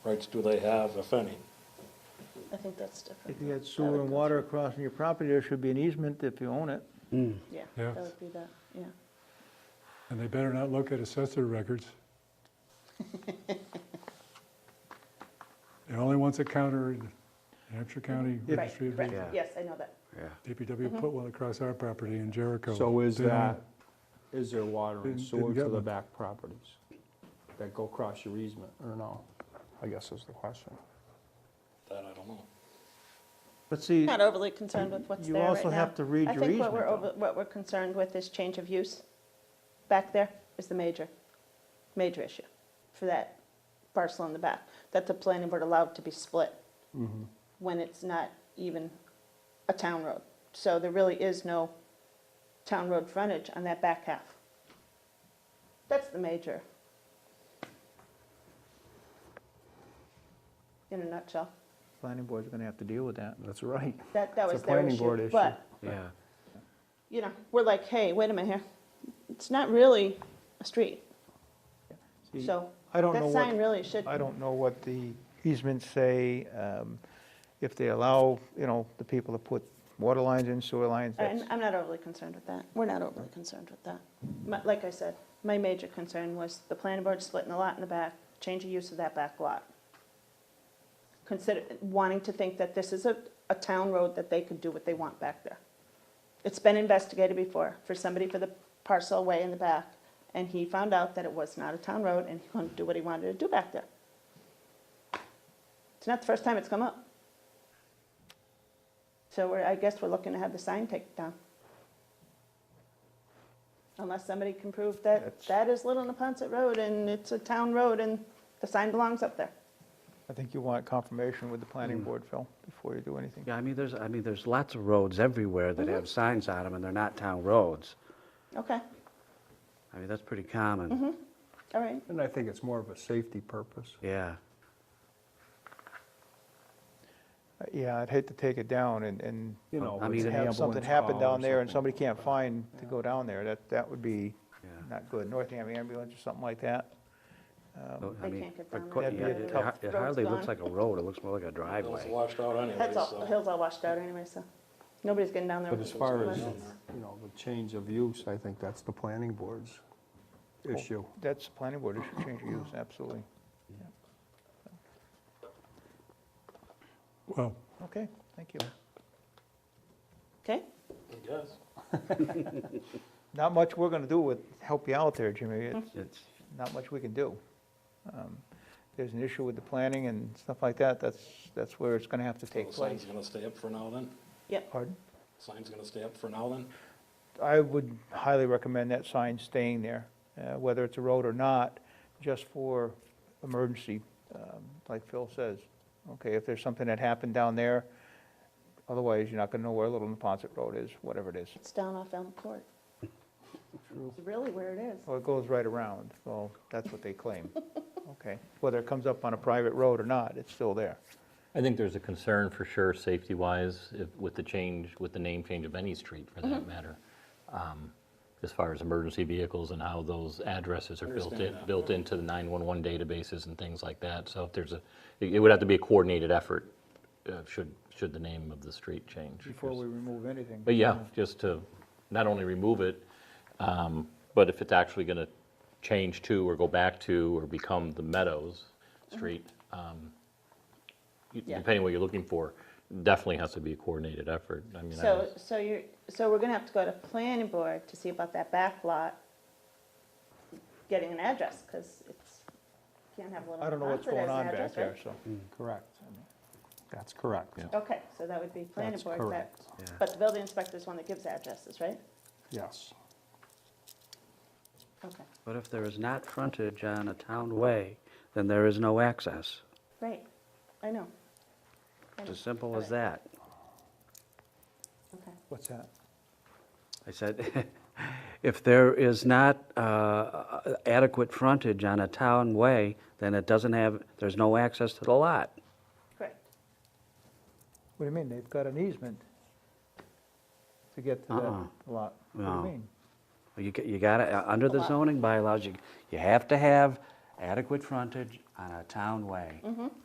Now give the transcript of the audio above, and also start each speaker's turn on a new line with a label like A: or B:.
A: rights do they have, if any?
B: I think that's different.
C: If you got sewer and water across on your property, there should be an easement if you own it.
B: Yeah,
D: Yeah.
B: that would be that, yeah.
D: And they better not look at assessor records. They're only once a counter in Hampshire County
B: Right,
D: Registry of
B: right.
D: Deeds.
E: Yeah.
B: Yes, I know that.
E: Yeah.
D: DPW put one across our property in Jericho.
F: So is
D: They don't-
F: that, is there water
D: Didn't-
F: and
D: didn't
F: sewer
D: get
F: to the
D: much.
F: back properties that go across your easement, or no? I guess is the question.
A: That I don't know.
C: But see,
B: Not overly concerned with what's
C: You
B: there right now.
C: also have to read your
B: I think what we're,
C: easement,
B: over- what we're concerned with is change of use. Back there is the major, major issue for that parcel in the back, that the planning board allowed to be split
C: Mm-hmm.
B: when it's not even a town road. So there really is no town road frontage on that back half. That's the major. In a nutshell.
C: planning board's gonna have to deal with that.
F: That's right.
B: That, that
F: It's a
B: was their
F: planning board
B: issue,
F: issue.
B: but,
E: Yeah.
B: you know, we're like, hey, wait a minute here, it's not really a street,
C: See,
B: so
C: I don't know
B: that sign
C: what,
B: really should,
C: I don't know what the easements say, um, if they allow, you know, the people to put water lines in, sewer lines, that's,
B: I'm, I'm not overly concerned with that, we're not overly concerned with that. My- Like I said, my major concern was the planning board splitting the lot in the back, change of use of that back lot. Consider, wanting to think that this is a, a town road that they could do what they want back there. It's been investigated before for somebody for the parcel away in the back, and he found out that it was not a town road, and he couldn't do what he wanted to do back there. It's not the first time it's come up. So we're, I guess we're looking to have the sign taken down. Unless somebody can prove that
C: That's-
B: that is Little Napontet Road, and it's a town road, and the sign belongs up there.
C: I think you want confirmation with the
F: Mm.
C: planning board, Phil, before you do anything.
E: Yeah, I mean, there's, I mean, there's lots of roads everywhere that
B: Mm-hmm.
E: have signs on them, and they're not town roads.
B: Okay,
E: I mean, that's pretty
B: Mm-hmm.
E: common.
B: all right.
F: And I think it's more of a safety purpose.
E: Yeah.
C: Uh, Yeah, I'd hate to take it down and, and
F: You know,
E: I
F: with
E: mean,
F: an
C: have something
F: ambulance
C: happen
F: call or
C: down there and
F: something.
C: somebody can't find to go down there, that, that would be
E: Yeah.
C: not good. Northampton ambulance or something like that.
E: So, I
B: They
E: mean,
B: can't get
E: but
B: down
E: qu-
C: there. That'd
E: yeah,
C: be a
E: It
C: tough-
E: har- it
B: road's
E: hardly looks
B: gone.
E: like a road, it looks more like a
A: It was
E: driveway.
A: washed out anyway,
B: That's all,
A: so-
B: the hill's all washed out anyway, so nobody's getting down there.
F: But
B: with
F: as far as,
B: equipment.
F: you know, the change of use, I think that's the planning board's issue.
C: That's the planning board, it should change of use, absolutely.
D: Well,
C: Okay, thank you.
B: Okay,
A: I guess.
C: Not much we're gonna do with, help you out there, Jimmy, it's
E: It's,
C: not much we can do. Um, There's an issue with the planning and stuff like that, that's, that's where it's gonna have to
A: So
C: take
A: the sign's
C: place.
A: gonna stay up for now then?
B: yep,
C: Pardon?
A: Sign's gonna stay up for now then?
C: I would highly recommend that sign staying there, uh, whether it's a road or not, just for emergency, um, like Phil says. Okay, if there's something that happened down there, otherwise you're not gonna know where Little Napontet Road is, whatever it is.
B: it's down off Elm Court. It's Really where it is.
C: Well, it goes right around, well, that's what they claim. Okay, whether it comes up on a private road or not, it's still there.
G: I think there's a concern for sure, safety-wise, if- with the change, with the name change of any street for that matter, um, as far as emergency vehicles and how those addresses are built
A: Understand
G: in,
A: that.
G: built into the 911 databases and things like that. So if there's a, it it would have to be a coordinated effort, uh, should, should the name of the street change.
C: Before we remove anything.
G: But yeah, just to not only remove it, um, but if it's actually going to change to or go back to or become the Meadows Street, um, y-
B: Mm-hmm. Yeah.
G: depending what you're looking for, definitely has to be a coordinated effort. I mean, I
B: So,
G: was-
B: so you're, so we're gonna have to go to planning board to see about that back lot getting an address, because it's, can't have Little
C: I don't know what's
B: Napontet as
C: going
B: an
C: on
B: address,
C: back there,
B: right?
C: so.
F: Mm. Correct. That's correct.
G: Yeah.
B: Okay, so that would be planning
F: That's
B: board, that,
F: correct.
E: Yeah.
B: but the building inspector's one that gives addresses, right?
F: Yes.
B: Okay,
E: but if there is not frontage on a town way, then there is no access.
B: right, I know. I
E: It's
B: know.
E: as simple as
B: Okay.
E: that.
B: Okay.
C: What's that?
E: I said, if there is not uh, adequate frontage on a town way, then it doesn't have, there's no access to the lot.
B: Correct.
C: What do you mean, they've got an easement to get to
E: Uh-uh.
C: that lot? What do
E: No.
C: you mean?
E: You, ca- you gotta, uh, under the zoning bylaws, you, you have to have adequate frontage on a town way.